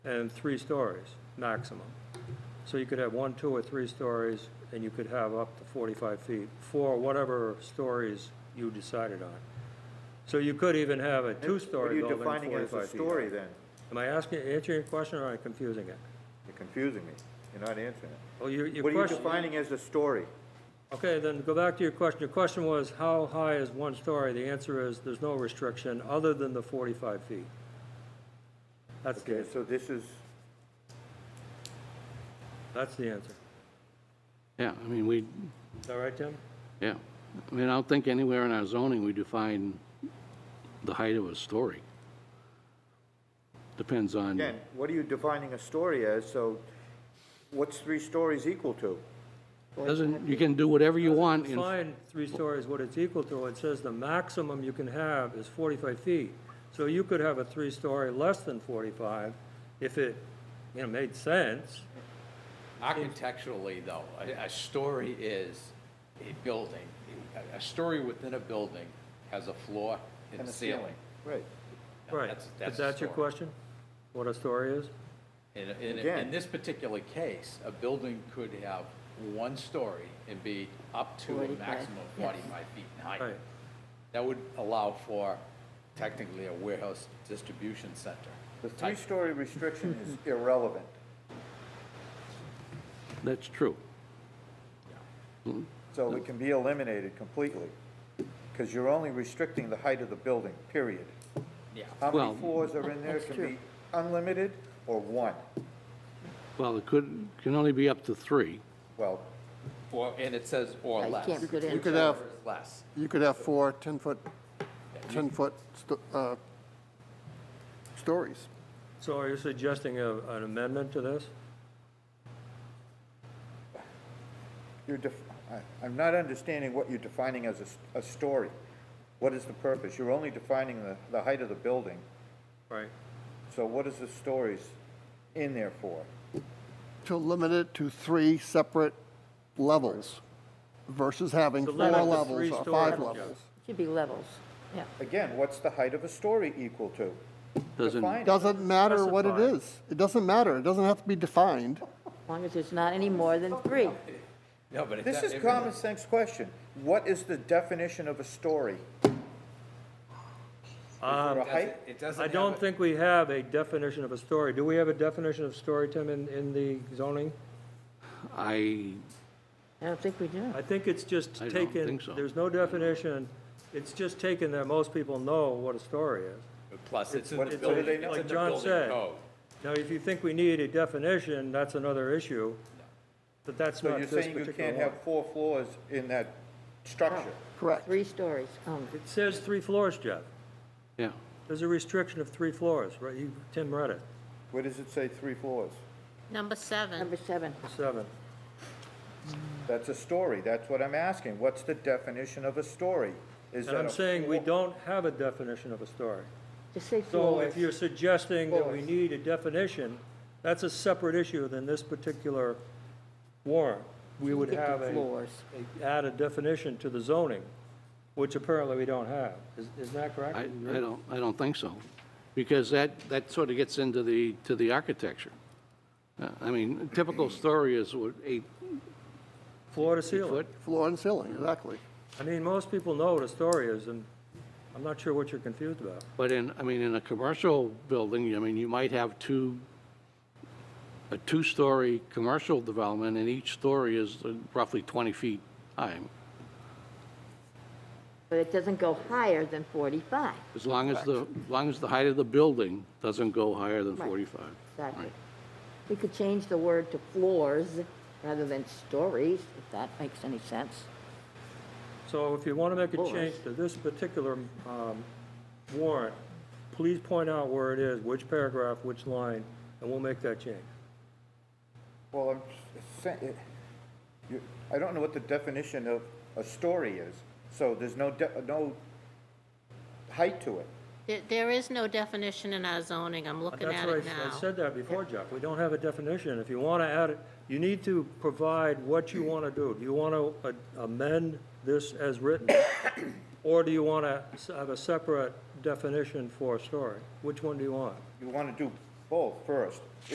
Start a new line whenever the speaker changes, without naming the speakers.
and three stories maximum. So you could have one, two, or three stories, and you could have up to 45 feet for whatever stories you decided on. So you could even have a two-story building
What are you defining
45
as a
feet.
story then?
Am I asking, answering your question or am I confusing it?
You're confusing me. You're not answering it.
Oh, your, your
What are you
question.
defining as a story?
Okay, then go back to your question. Your question was, how high is one story? The answer is, there's no restriction other than the 45 feet. That's the,
Okay, so this is,
that's the answer.
Yeah, I mean, we,
Is that right, Tim?
yeah. I mean, I don't think anywhere in our zoning we define the height of a story. Depends on,
again, what are you defining a story as? So what's three stories equal to?
doesn't, you can do whatever you want in
Define three stories what it's equal to. It says the maximum you can have is 45 feet. So you could have a three-story less than 45 if it, you know, made sense.
Architecturally, though, a, a story is a building. A, a story within a building has a floor and a ceiling.
Right.
Right.
That's-
Is
that's a
that your
story.
question? What a story is?
In, in,
Again.
in this particular case, a building could have one story and be up to a
45,
maximum of
yes.
forty-five feet in height.
Right.
That would allow for technically a warehouse distribution center.
The three-story restriction is irrelevant.
That's true.
So it can be eliminated completely, because you're only restricting the height of the building, period.
Yeah.
How
Well-
many floors are in there? It can be unlimited or one?
Well, it could, can only be up to three.
Well,
Or, and it says or
Yeah, you
less.
can't put in- You
could have-
Whichever is Less.
You could have four 10-foot, 10-foot sto- uh, stories.
So are you suggesting a- an amendment to this?
you're def, I, I'm not understanding what you're defining as a s- a, story. What is the purpose? You're only defining the, the height of the building,
Right.
so what is the stories in there for?
To limit it to three separate levels versus having
So
four
limit the three
levels or five
stories,
levels.
Should be levels, yeah.
Again, what's the height of a story equal to?
Doesn't,
Define it.
Doesn't matter what it
Specify.
is. It doesn't matter. It doesn't have to be defined.
As long as it's not any more than three.
No, but it
This
does-
is
if it-
common sense question. What is the definition of a story?
Um,
For a height?
It doesn't
I
have
don't
a-
think we have a definition of a story. Do we have a definition of story, Tim, in, in the zoning?
I,
I don't think we do.
I think it's just
I don't
taken,
think so.
there's no definition, it's just taken that most people know what a story is.
Plus, it's in
What-
the
what do they
building,
know?
it's in
Like
the
John
building
said.
code.
Now, if you think we need a definition, that's another issue, but that's
So
not
you're
this
saying you
particular
can't
one. Oh.
have four floors in that structure?
Correct.
Three stories Um, only.
It says three floors, Jeff.
yeah,
There's a restriction of three floors, right? You, Tim read it,
Where does it say three floors?
Number seven,
Number seven,
seven.
That's a story. That's what I'm asking. What's the definition of a story? Is
And
that
I'm
a
saying we
floor-
don't have a definition of a story.
just say
So
floors.
if you're suggesting that we
Floors.
need a definition, that's a separate issue than this particular warrant. We would
Get the
have a,
Floors.
a- add a definition to the zoning, which apparently we don't have. Is, is that correct?
I, I don't, I don't think so. Because that, that sort of gets into the, to the architecture. Uh, I mean, typical story is what, eight
Floor to ceiling.
foot?
Floor and ceiling, exactly.
I mean, most people know what a story is, and I'm not sure what you're confused about.
But in, I mean, in a commercial building, I mean, you might have two, a two-story commercial development, and each story is roughly 20 feet high,
But it doesn't go higher than 45,
as long as the, as long as the height of the building doesn't go higher than
Right.
45.
exactly.
Right.
We could change the word to floors rather than stories, if that makes any sense.
So if you want to make a
Floors.
change to this particular um, warrant, please point out where it is, which paragraph, which line, and we'll make that change.
Well, I'm s- saying, it- you- I don't know what the definition of a story is, so there's no, de- no height to it.
There- there is no definition in our zoning, I'm looking
That's
at
right.
it
I
now.
said that before, Jeff. We don't have a definition. If you want to add it, you need to provide what you want to do. Do you want to amend this as written? Or do you want to have a separate definition for a story? Which one do you want?
You want to do both first.